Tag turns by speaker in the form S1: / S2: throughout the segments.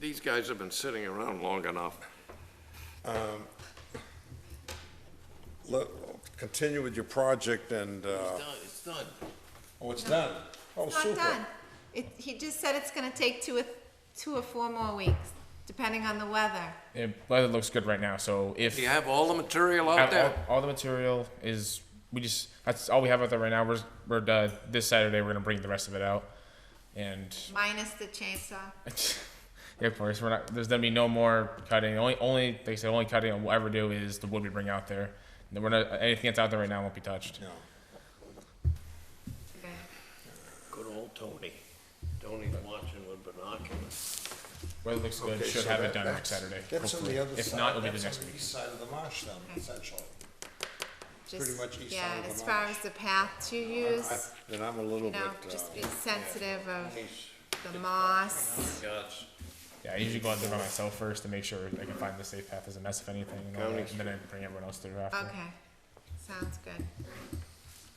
S1: these guys have been sitting around long enough.
S2: Let, continue with your project and, uh,
S1: Done, It's done.
S2: oh, it's done? Oh,
S3: It's not
S2: super.
S3: done. It, he just said it's gonna take two or, two or four more weeks, depending on the weather.
S4: It, weather looks good right now, so if
S1: Do you have all the material out
S4: have
S1: there?
S4: all, all the material is, we just that's all we have out there right now. We're we're done. this Saturday. We're gonna bring the rest of it out, and
S3: Minus the chainsaw.
S4: yeah, of course we're not. There's gonna be no more cutting. Only only like I said, only cutting we'll ever do is the wood we bring out there. We're not anything that's out there right now won't be touched.
S2: Yeah.
S3: Okay.
S1: Good old Tony. Tony's watching with binoculars.
S4: Weather looks good.
S2: Okay,
S4: Should
S2: so
S4: have
S2: that-
S4: it done next
S2: that's-
S4: Saturday.
S2: That's on
S4: hopefully.
S2: the other side.
S4: If not, it'll be the
S2: That's on
S4: next
S2: the
S4: week.
S2: East side of the marsh then, essentially.
S3: Just-
S2: pretty much east side of
S3: Yeah,
S2: the
S3: as far
S2: marsh.
S3: as the path you use,
S2: Then I'm a little
S3: you
S2: bit,
S3: know, just be
S2: uh,
S3: sensitive of the moss.
S1: God's
S4: Yeah, I usually go out there by myself first to make sure I can find the safe path as a mess if anything, and, all that, and then I bring everyone else through after.
S3: Okay, sounds good.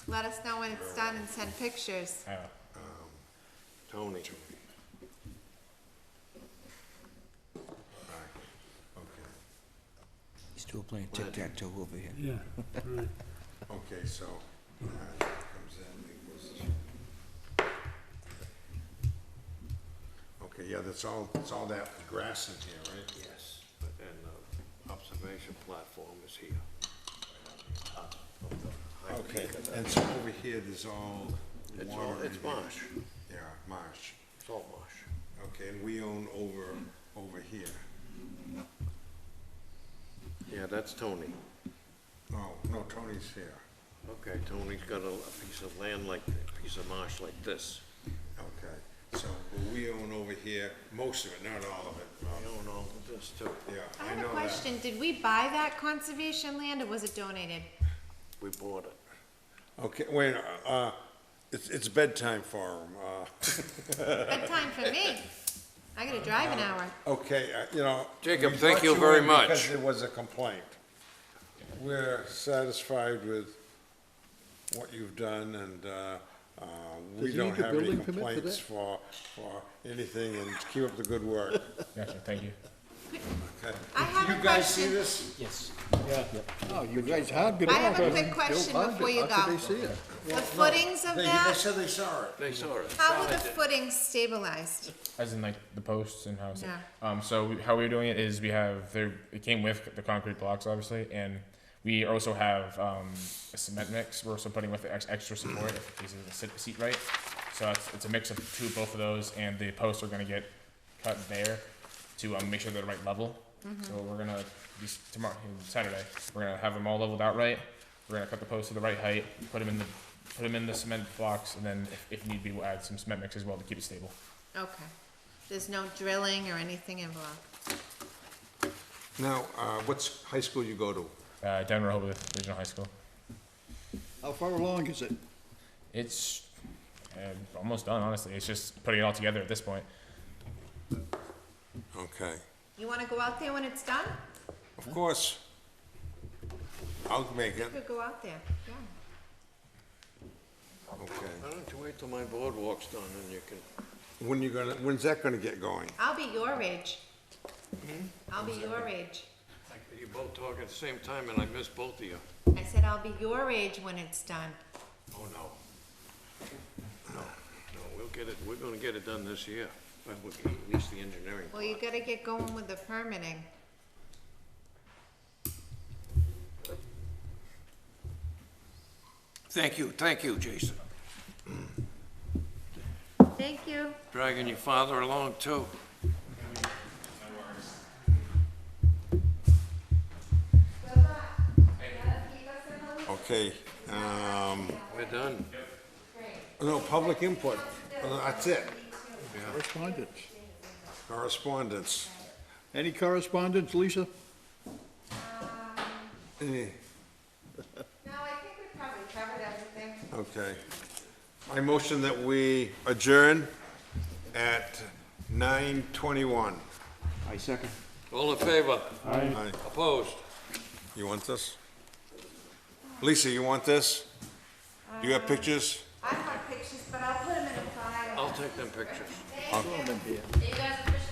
S3: Let us know when it's done and send pictures.
S4: I don't know.
S1: Tony.
S2: okay,
S5: Still playing tic-tac-toe over here.
S6: Yeah, right.
S2: okay, so, all right, comes in, it goes. Okay, yeah, that's all, that's all that grass is here, right?
S1: Yes. But then the uh, observation platform is here. Up of the high
S2: Okay,
S1: peak of that.
S2: and so over here, there's all
S1: It's all,
S2: water.
S1: it's
S2: and-
S1: marsh,
S2: Yeah, marsh.
S1: it's all marsh.
S2: Okay, and we own over, over here.
S1: Yeah, that's Tony.
S2: Oh, no, Tony's here.
S1: Okay, Tony's got a, a piece of land like, a piece of marsh like this.
S2: Okay, so but we own over here, most of it, not all of it.
S1: I own all of this too.
S2: Yeah,
S3: I
S2: I
S3: have a
S2: know that.
S3: question, did we buy that conservation land or was it donated?
S1: We bought it.
S2: Okay, wait, uh, it's, it's bedtime for him. Uh,
S3: Bedtime for me. I gotta drive an hour.
S2: okay, uh, you know.
S1: Jacob,
S2: we
S1: thank
S2: brought
S1: you very
S2: in
S1: much.
S2: Because there was a complaint. We're satisfied with what you've done and, uh, uh, we
S6: he
S2: don't
S6: need a
S2: have any
S6: building permit for
S2: complaints
S6: that?
S2: for, for anything and keep up the good work.
S4: Gotcha. Thank you.
S2: Okay.
S3: I have a
S2: You guys see
S3: question.
S2: this?
S6: Oh, you guys have been.
S3: I have a quick question
S6: Bill Bundy,
S3: before you
S6: How could
S3: go.
S6: they see it?
S3: The footings of
S2: They, they
S3: that,
S2: said they saw it.
S1: They saw it.
S3: how were the footings stabilized?
S4: As in like the posts and how. It's
S3: Yeah.
S4: Um. So we, how we were doing it is we have there. It came with the concrete blocks, obviously, and we also have um, a cement mix. We're also putting with the ex- extra support if it doesn't sit seat right. So it's, it's a mix of two, both of those, and the posts are gonna get cut there to um, make sure they're the right level. So we're gonna be s- tomorrow Saturday. We're gonna have them all leveled out right. We're gonna cut the posts to the right height, put them in the put them in the cement blocks, and then if, if need be, we'll add some cement mix as well to keep it stable.
S3: Okay. There's no drilling or anything involved?
S2: Now, uh, what's high school you go to?
S4: uh, Denver Rehoboth Regional High School.
S6: How far along is it?
S4: It's uh, almost done, honestly. It's just putting it all together at this point.
S2: Okay.
S3: You wanna go out there when it's done?
S2: Of course. I'll make it.
S3: You could go out there, yeah.
S2: Okay.
S1: Why don't you wait till my boardwalk's done and you can
S2: When you gonna, when's that gonna get going?
S3: I'll be your age. I'll be your age.
S1: You both talk at the same time, and I miss both of you.
S3: I said I'll be your age when it's done.
S1: Oh, no. No, no, we'll get it, we're gonna get it done this year, but we- at least the engineering
S3: Well, you
S1: part.
S3: gotta get going with the permitting.
S1: Thank you, thank you, Jason.
S3: Thank you.
S1: Dragging your father along, too.
S2: Okay, um,
S1: We're done.
S2: no, public input. Uh, That's it.
S6: Correspondence.
S2: Correspondence.
S6: Any correspondence, Lisa?
S2: Eh,
S3: No, I think we probably covered everything.
S2: Okay. I motion that we adjourn at nine twenty-one.
S5: I second.
S1: All in favor?
S2: Aye.
S1: Opposed?
S2: You want this? Lisa, you want this? Do you have pictures?
S3: I have pictures, but I'll put them in the file.
S1: I'll take them pictures.
S3: Thank you. You guys appreciate